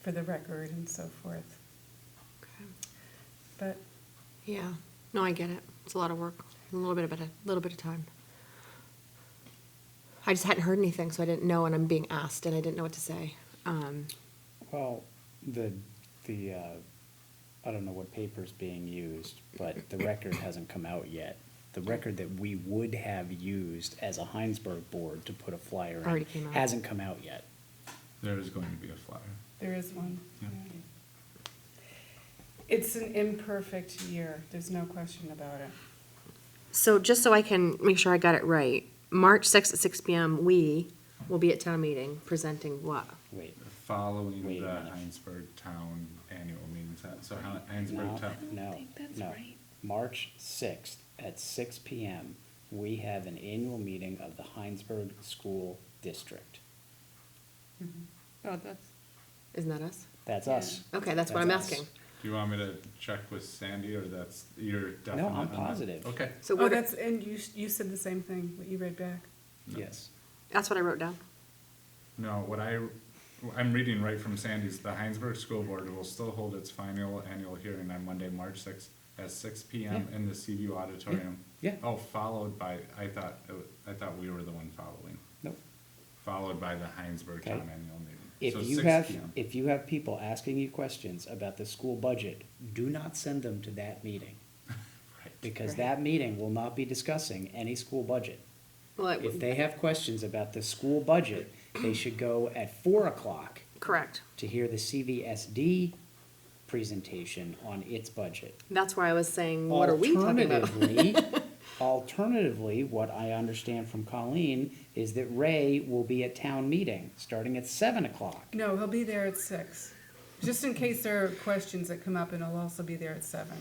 for the record and so forth. Okay. But Yeah, no, I get it. It's a lot of work, a little bit of, a little bit of time. I just hadn't heard anything, so I didn't know, and I'm being asked, and I didn't know what to say. Um, Well, the, the, uh, I don't know what paper's being used, but the record hasn't come out yet. The record that we would have used as a Heinsberg board to put a flyer Already in came out. hasn't come out yet. There is going to be a flyer. there is one. Yeah. It's an imperfect year, there's no question about it. So just so I can make sure I got it right, March sixth at six PM, we will be at town meeting presenting what? Wait, Following Wait a the minute. Heinsberg Town annual meeting, Is that- so Hi- no, Heinsberg Town, no, no. March sixth at six P M, we have an annual meeting of the Heinsberg School District. Oh, that's, Isn't that us? That's us. Okay, that's what I'm That's us. asking. do you want me to check with Sandy, or that's, you're definite? I'm on that? positive. Okay, So Oh, what, that's, and you, s- you said the same thing, what you read back. Yes. that's what I wrote down. no, what I, I'm reading right from Sandy's, the Heinsberg School Board will still hold its final annual hearing on Monday, March sixth, at six P M Yeah. in the CVU auditorium. Yeah. Oh, followed by, I thought, it wa- I thought we were the one following, Nope. followed by the Heinsberg Okay. Town annual meeting. If So you 6 have, p.m. if you have people asking you questions about the school budget, do not send them to that meeting. Because that meeting will not be discussing any school budget. Well, it- If they have questions about the school budget, they should go at four o'clock correct. to hear the CVSD presentation on its budget. That's why I was saying, what are we talking about? Alternatively, alternatively, what I understand from Colleen is that Ray will be at town meeting, starting at seven o'clock. No, he'll be there at six, just in case there are questions that come up, and he'll also be there at seven.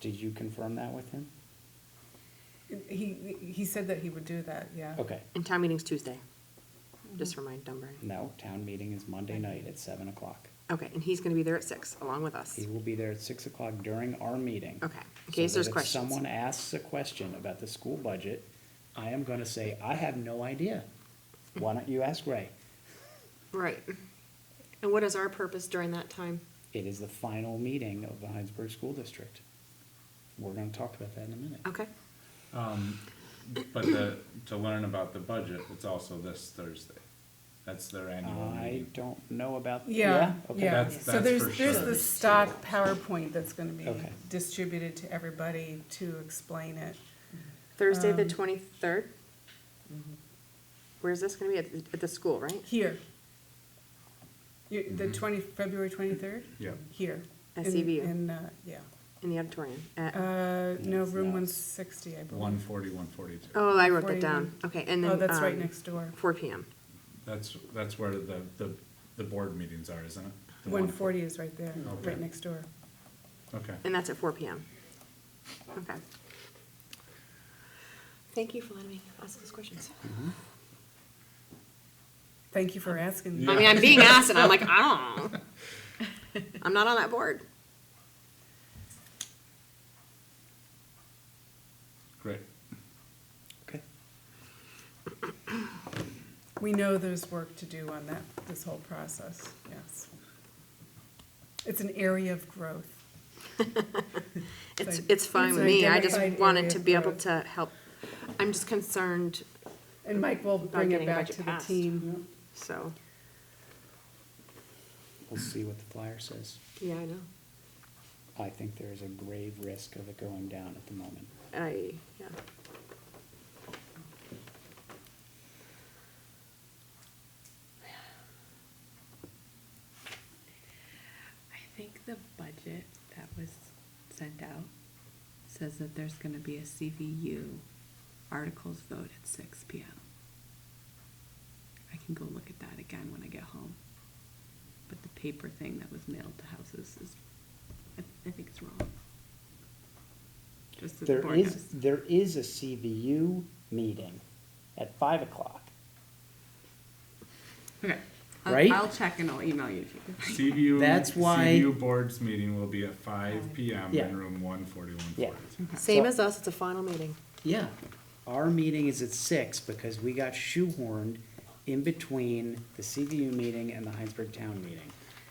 Did you confirm that with him? He, he said that he would do that, yeah. Okay, And town meeting's Tuesday. Just remind Dunbar. no, town meeting is Monday night at seven o'clock. Okay, and he's gonna be there at six, along with us. He will be there at six o'clock during our meeting. Okay, in So case that there's if questions. Someone asks a question about the school budget, I am gonna say, I have no idea. Why don't you ask Ray? Right. And what is our purpose during that time? It is the final meeting of the Heinsberg School District. We're gonna talk about that in a minute. Okay, Um, but the, to learn about the budget, it's also this Thursday. That's their annual I meeting. don't know about. Yeah, okay. yeah. That's- So that's there's, for there's sure. the stock PowerPoint that's gonna be Okay. distributed to everybody to explain it. Thursday, the Um, twenty-third? mm-hmm. Where's this gonna be? At, at the school, right? Here. You, the twenty, February twenty-third? Mm-hmm. Yeah. Here. At In- CVU. In, uh, yeah. In the auditorium? at- Uh, no, it's room not. one sixty, I believe. One forty, one forty-two. Oh, I wrote that down. 41. Okay, and then. Oh, that's right um, next door. Four PM. That's, that's where the, the, the board meetings are, isn't it? The One forty is right there, Okay. right next door. Okay. And that's at four PM. Okay. Thank you for letting me ask those questions. Thank you for asking. I mean, I'm being asked and I'm like, I don't know. I'm not on that board. Great. Okay. We know there's work to do on that, this whole process, yes. It's an area of growth. It's, Like, it's fine it's with me, I just identified wanted area to of be able growth. to help. I'm just concerned, And Mike will bring it getting a back budget to the passed. team. so, We'll see what the flyer says. yeah, I know. I think there is a grave risk of it going down at the moment. I, yeah. I think the budget that was sent out says that there's gonna be a CVU articles vote at six P M. I can go look at that again when I get home. But the paper thing that was mailed to houses is, I, I think it's wrong. Just so the There board is, knows. there is a CVU meeting at five o'clock. Okay, I'll- Right? I'll check and I'll email you. CVU. That's why- CVU board's meeting will be at five P M Yeah. in room one forty, one Yeah. forty-two. Same So- as us, it's a final meeting. Yeah, our meeting is at six because we got shoehorned in between the CVU meeting and the Heinsberg Town meeting.